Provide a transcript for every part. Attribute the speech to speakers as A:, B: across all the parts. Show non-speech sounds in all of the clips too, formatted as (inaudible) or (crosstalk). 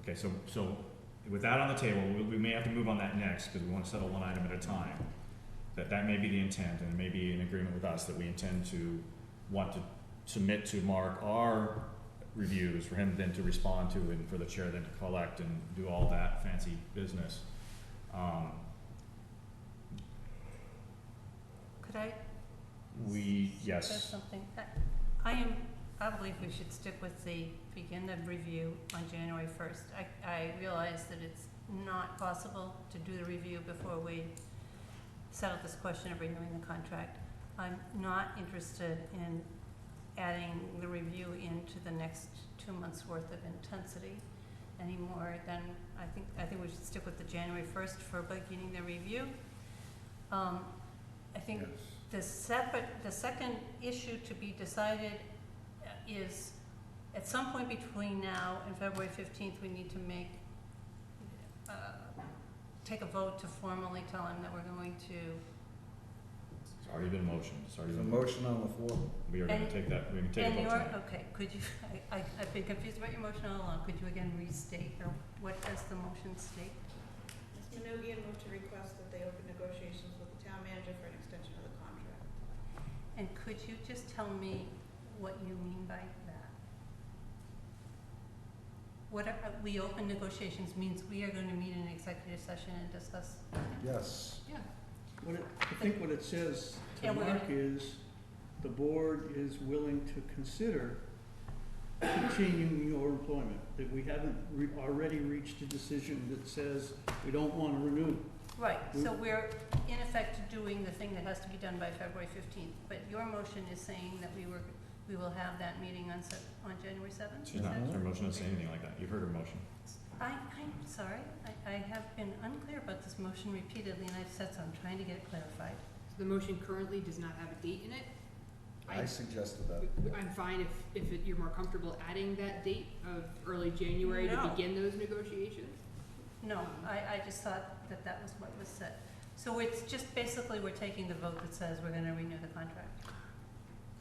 A: Okay, so, so with that on the table, we, we may have to move on that next, because we want to settle one item at a time. That, that may be the intent, and maybe an agreement with us that we intend to, want to submit to Mark our reviews for him then to respond to and for the chair then to collect and do all that fancy business. Um,
B: Could I
A: we,
B: say
A: yes,
B: something? I- I am, I believe we should stick with the, begin the review on January first. I, I realize that it's not possible to do the review before we settle this question of renewing the contract. I'm not interested in adding the review into the next two months' worth of intensity anymore than, I think, I think we should stick with the January first for beginning the review. Um, I think the separate, the second issue to be decided uh, is, at some point between now and February fifteenth, we need to make, uh, take a vote to formally tell him that we're going to,
A: it's already been motioned, it's already
C: There's a
A: been,
C: motion on the floor.
A: we are gonna
B: And-
A: take that, we're gonna take a
B: and
A: vote
B: your,
A: tonight.
B: okay, could you, (laughs) I, I- I've been confused about your motion all along, could you again restate, or what does the motion state?
D: Ms. Minogian moved to request that they open negotiations with the town manager for an extension of the contract.
B: And could you just tell me what you mean by that? What are, uh, we open negotiations means we are gonna meet in executive session and discuss,
C: Yes.
B: yeah,
E: What it, I think what it says
B: Yeah,
E: to
B: we're
E: Mark is, the board is willing to consider continuing your employment, that we haven't re- already reached a decision that says we don't wanna renew.
B: right, so we're in effect doing the thing that has to be done by February fifteenth, but your motion is saying that we were, we will have that meeting on Sep- on January seventh,
A: She's not, her motion doesn't say anything like that, you've heard her motion.
B: I, I'm sorry, I, I have been unclear about this motion repeatedly, and I've said so, I'm trying to get it clarified.
F: So The motion currently does not have a date in it.
C: I
F: I,
C: suggested that.
F: I'm fine if, if it- you're more comfortable adding that date of early January to
B: No.
F: begin those negotiations.
B: No, I, I just thought that that was what was said. So it's just basically, we're taking the vote that says we're gonna renew the contract.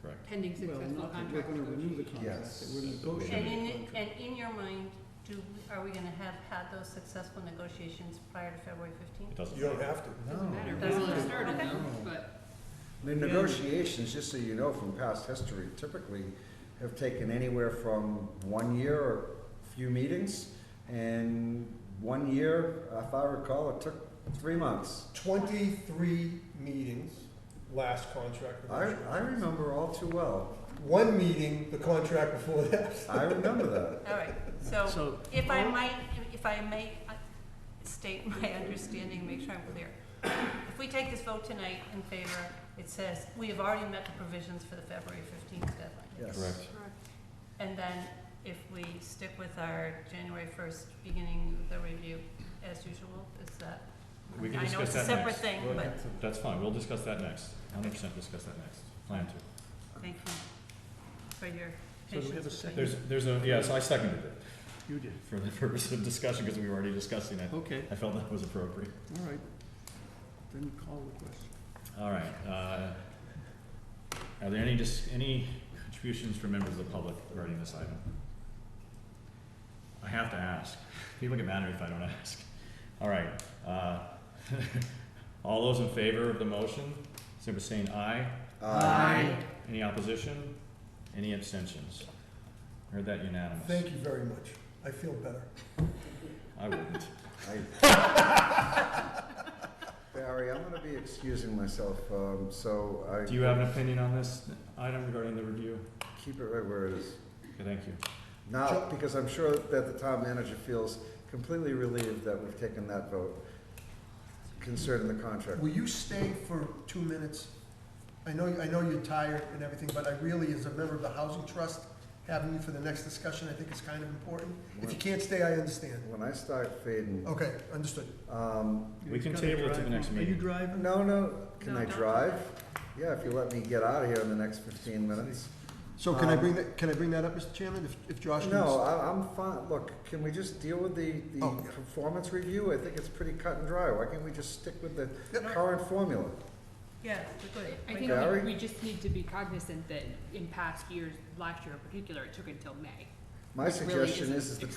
A: Correct.
F: Pending
E: Well,
F: successful
E: not that we're
F: contract
E: gonna renew the
F: negotiations.
E: contract, that
C: Yes.
E: we're
B: And
E: negotiating the
B: in,
E: contract.
B: and in your mind, do, are we gonna have had those successful negotitions prior to February
A: It
B: fifteenth?
A: doesn't. say.
C: have to.
F: Doesn't matter,
B: Doesn't
F: we
B: matter.
F: have started
B: Okay.
F: them, but
C: The negotiations, just so you know from past history, typically have taken anywhere from one year or a few meetings. And one year, if I recall, it took three months.
G: 23 meetings, last contract
C: I,
G: negotiation.
C: I remember all too well.
G: One meeting, the contract before that.
C: I remember that.
B: All right, so
E: So,
B: if I might, if I may uh, state (laughs) my understanding, make sure I'm clear. If we take this vote tonight in favor, it says, we have already met the provisions for the February fifteenth deadline.
C: Yes.
A: Correct.
B: And then if we stick with our January first, beginning the review as usual, is that?
A: We can
B: I know
A: discuss
B: it's a
A: that next.
B: separate thing, but,
A: That's fine, we'll discuss that next, hundred percent discuss that next, plan to.
B: thank you for your
E: So do we
B: patience.
E: have a
B: with
E: second?
B: me.
A: There's, there's a, yeah, so I seconded it
E: you did,
A: for the (laughs) purpose of discussion, because we were already discussing it.
E: okay,
A: I felt that was appropriate.
E: all right, then call the question.
A: All right, uh, are there any, dis- any contributions from members of the public regarding this item? I have to ask, (laughs) people get mad at me if I don't (laughs) ask. All right, uh, (laughs) all those in favor of the motion, simply saying aye.
C: Aye.
A: Any opposition? Any abstentions? Heard that unanimous.
G: Thank you very much. I feel better.
A: I wouldn't.
C: I- Barry, I'm gonna be excusing myself, um, so I.
A: Do you have an opinion on this item regarding the review?
C: Keep it right where it is.
A: Okay, thank you.
C: Now, because I'm sure that the town manager feels completely relieved that we've taken that vote concerning the contract.
G: Will you stay for two minutes? I know, I know you're tired and everything, but I really, as a member of the Housing Trust, having you for the next discussion, I think is kind of important. If you can't stay, I understand.
C: When I start fading,
G: Okay, understood.
C: um,
A: We can
E: You've gotta
A: table it to the
E: drive
A: next
E: home. Are
A: meeting.
E: you driving?
C: no, no, can
B: No,
C: I
B: don't.
C: drive? Yeah, if you let me get out of here in the next fifteen minutes.
G: So can I bring that, can I bring that up, Mr. Chairman, if, if Josh needs?
C: Um, No, I, I'm fine, look, can we just deal with the, the
G: Oh, yeah.
C: performance review? I think it's pretty cut and dry, why can't we just stick with the
G: Yep.
C: current formula?
B: Yeah, we're good.
F: I
B: We're
F: think
B: good.
C: Barry?
F: we, we just need to be cognizant that in past years, last year in particular, it took until May.
C: My
F: Which really
C: suggestion
F: isn't
C: is, is the